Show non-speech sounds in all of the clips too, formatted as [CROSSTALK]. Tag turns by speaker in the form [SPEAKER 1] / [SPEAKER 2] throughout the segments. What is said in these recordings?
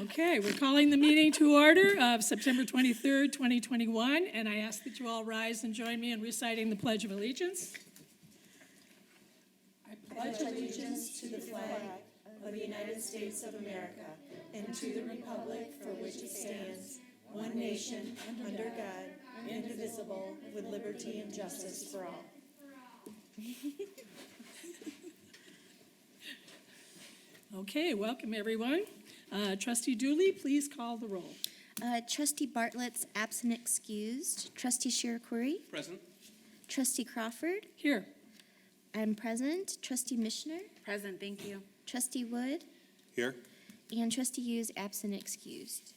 [SPEAKER 1] Okay, we're calling the meeting to order of September 23rd, 2021, and I ask that you all rise and join me in reciting the Pledge of Allegiance. Okay, welcome, everyone. Uh, Trustee Dooley, please call the roll.
[SPEAKER 2] Uh, Trustee Bartlett's absent excused. Trustee Shirakuri.
[SPEAKER 3] Present.
[SPEAKER 2] Trustee Crawford.
[SPEAKER 1] Here.
[SPEAKER 2] I'm present. Trustee Mishner.
[SPEAKER 4] Present, thank you.
[SPEAKER 2] Trustee Wood.
[SPEAKER 3] Here.
[SPEAKER 2] And Trustee Hughes absent excused.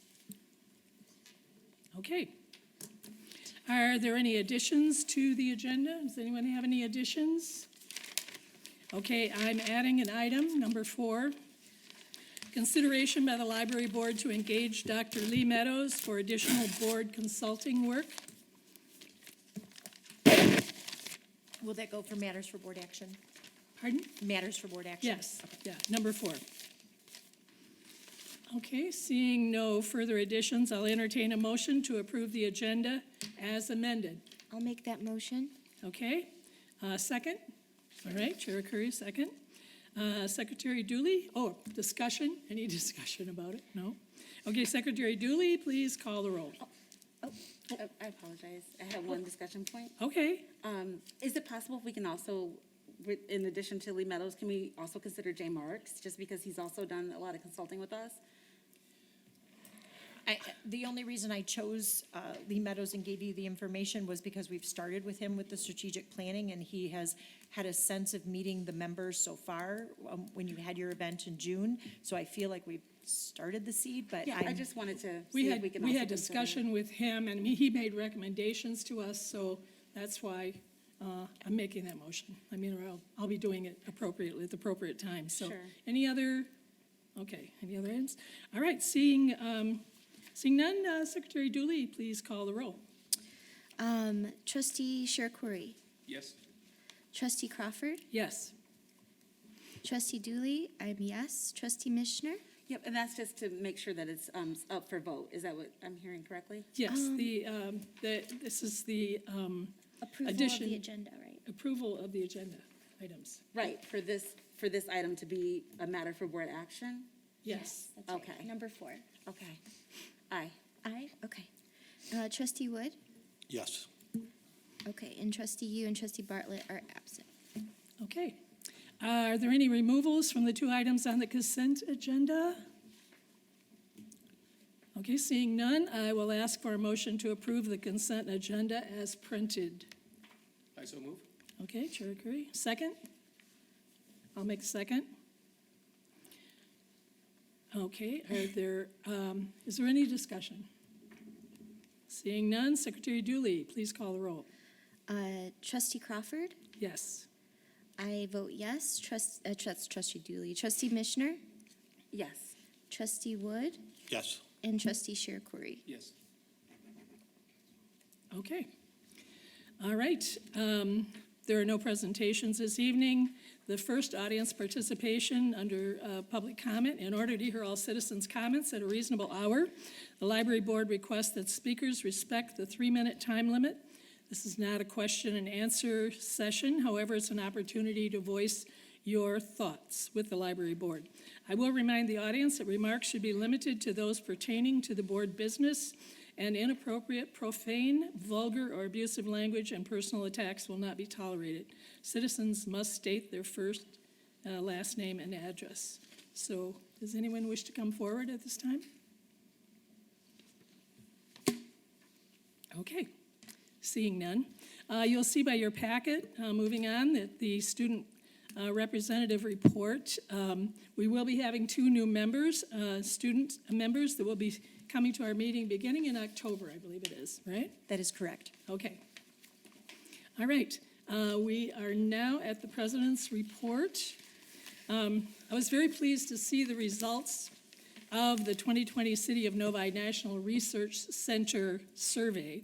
[SPEAKER 1] Okay. Are there any additions to the agenda? Does anyone have any additions? Okay, I'm adding an item, number four. Consideration by the library board to engage Dr. Lee Meadows for additional board consulting work.
[SPEAKER 5] Will that go for matters for board action?
[SPEAKER 1] Pardon?
[SPEAKER 5] Matters for board action?
[SPEAKER 1] Yes, yeah, number four. Okay, seeing no further additions, I'll entertain a motion to approve the agenda as amended.
[SPEAKER 2] I'll make that motion.
[SPEAKER 1] Okay, uh, second? All right, Chair Curry, second. Uh, Secretary Dooley, oh, discussion, any [LAUGHS] discussion about it? No? Okay, Secretary Dooley, please call the roll.
[SPEAKER 4] Uh, I apologize. I have one discussion point.
[SPEAKER 1] Okay,
[SPEAKER 4] Um, Is it possible if we can also, with- in addition to Lee Meadows, can we also consider Jay Marks? Just because he's also done a lot of consulting with us?
[SPEAKER 5] I, the only reason I chose uh, Lee Meadows and gave you the information was because we've started with him with the strategic planning, and he has had a sense of meeting the members so far, um, when you had your event in June. So I feel like we've started the seed, but
[SPEAKER 4] Yeah, I
[SPEAKER 5] I'm-
[SPEAKER 4] just wanted to
[SPEAKER 1] we
[SPEAKER 4] see if
[SPEAKER 1] had,
[SPEAKER 4] we can also.
[SPEAKER 1] we had
[SPEAKER 4] consider-
[SPEAKER 1] discussion with him, and he made recommendations to us, so that's why uh, I'm making that motion. I mean, or I'll, I'll be doing it appropriately, at the appropriate time, so.
[SPEAKER 4] Sure.
[SPEAKER 1] Any other, okay, any other ends? All right, seeing, um, seeing none, uh, Secretary Dooley, please call the roll.
[SPEAKER 2] Um, Trustee Shirakuri.
[SPEAKER 3] Yes.
[SPEAKER 2] Trustee Crawford.
[SPEAKER 1] Yes.
[SPEAKER 2] Trustee Dooley. I'm yes. Trustee Mishner.
[SPEAKER 4] Yep, and that's just to make sure that it's um, up for vote. Is that what I'm hearing correctly?
[SPEAKER 1] Yes, the, um, the, this is the, um,
[SPEAKER 2] Approval of
[SPEAKER 1] Addition.
[SPEAKER 2] the agenda, right?
[SPEAKER 1] approval of the agenda items.
[SPEAKER 4] Right, for this, for this item to be a matter for board action?
[SPEAKER 1] Yes.
[SPEAKER 2] That's right.
[SPEAKER 4] Okay.
[SPEAKER 2] Number four.
[SPEAKER 4] Okay. Aye.
[SPEAKER 2] Aye. Okay. Uh, Trustee Wood.
[SPEAKER 3] Yes.
[SPEAKER 2] Okay. And Trustee you and Trustee Bartlett are absent.
[SPEAKER 1] Okay. Are there any removals from the two items on the consent agenda? Okay, seeing none, I will ask for a motion to approve the consent agenda as printed.
[SPEAKER 3] I so move.
[SPEAKER 1] Okay, Chair Curry, second? I'll make a second. Okay, are there, um, is there any discussion? Seeing none, Secretary Dooley, please call the roll.
[SPEAKER 2] Uh, Trustee Crawford.
[SPEAKER 1] Yes.
[SPEAKER 2] I vote yes. Trust, uh, trust, trustee Dooley, trustee Mishner,
[SPEAKER 4] Yes.
[SPEAKER 2] trustee Wood,
[SPEAKER 3] Yes.
[SPEAKER 2] and trustee Shirakuri.
[SPEAKER 3] Yes.
[SPEAKER 1] Okay. All right. um, There are no presentations this evening. The first audience participation under uh, public comment, in order to hear all citizens' comments at a reasonable hour, the library board requests that speakers respect the three-minute time limit. This is not a question and answer session, however, it's an opportunity to voice your thoughts with the library board. I will remind the audience that remarks should be limited to those pertaining to the board business, and inappropriate, profane, vulgar, or abusive language and personal attacks will not be tolerated. Citizens must state their first, uh, last name, and address. So, does anyone wish to come forward at this time? Okay, seeing none. Uh, You'll see by your packet, uh, moving on, that the student uh, representative report, um, we will be having two new members, uh, student members that will be coming to our meeting beginning in October, I believe it is, right?
[SPEAKER 5] that is correct.
[SPEAKER 1] Okay. All right, uh, we are now at the president's report. Um, I was very pleased to see the results of the 2020 City of Novi National Research Center survey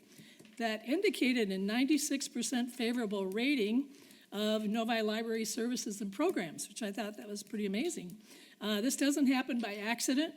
[SPEAKER 1] that indicated a 96% favorable rating of Novi Library Services and Programs, which I thought that was pretty amazing. Uh, This doesn't happen by accident,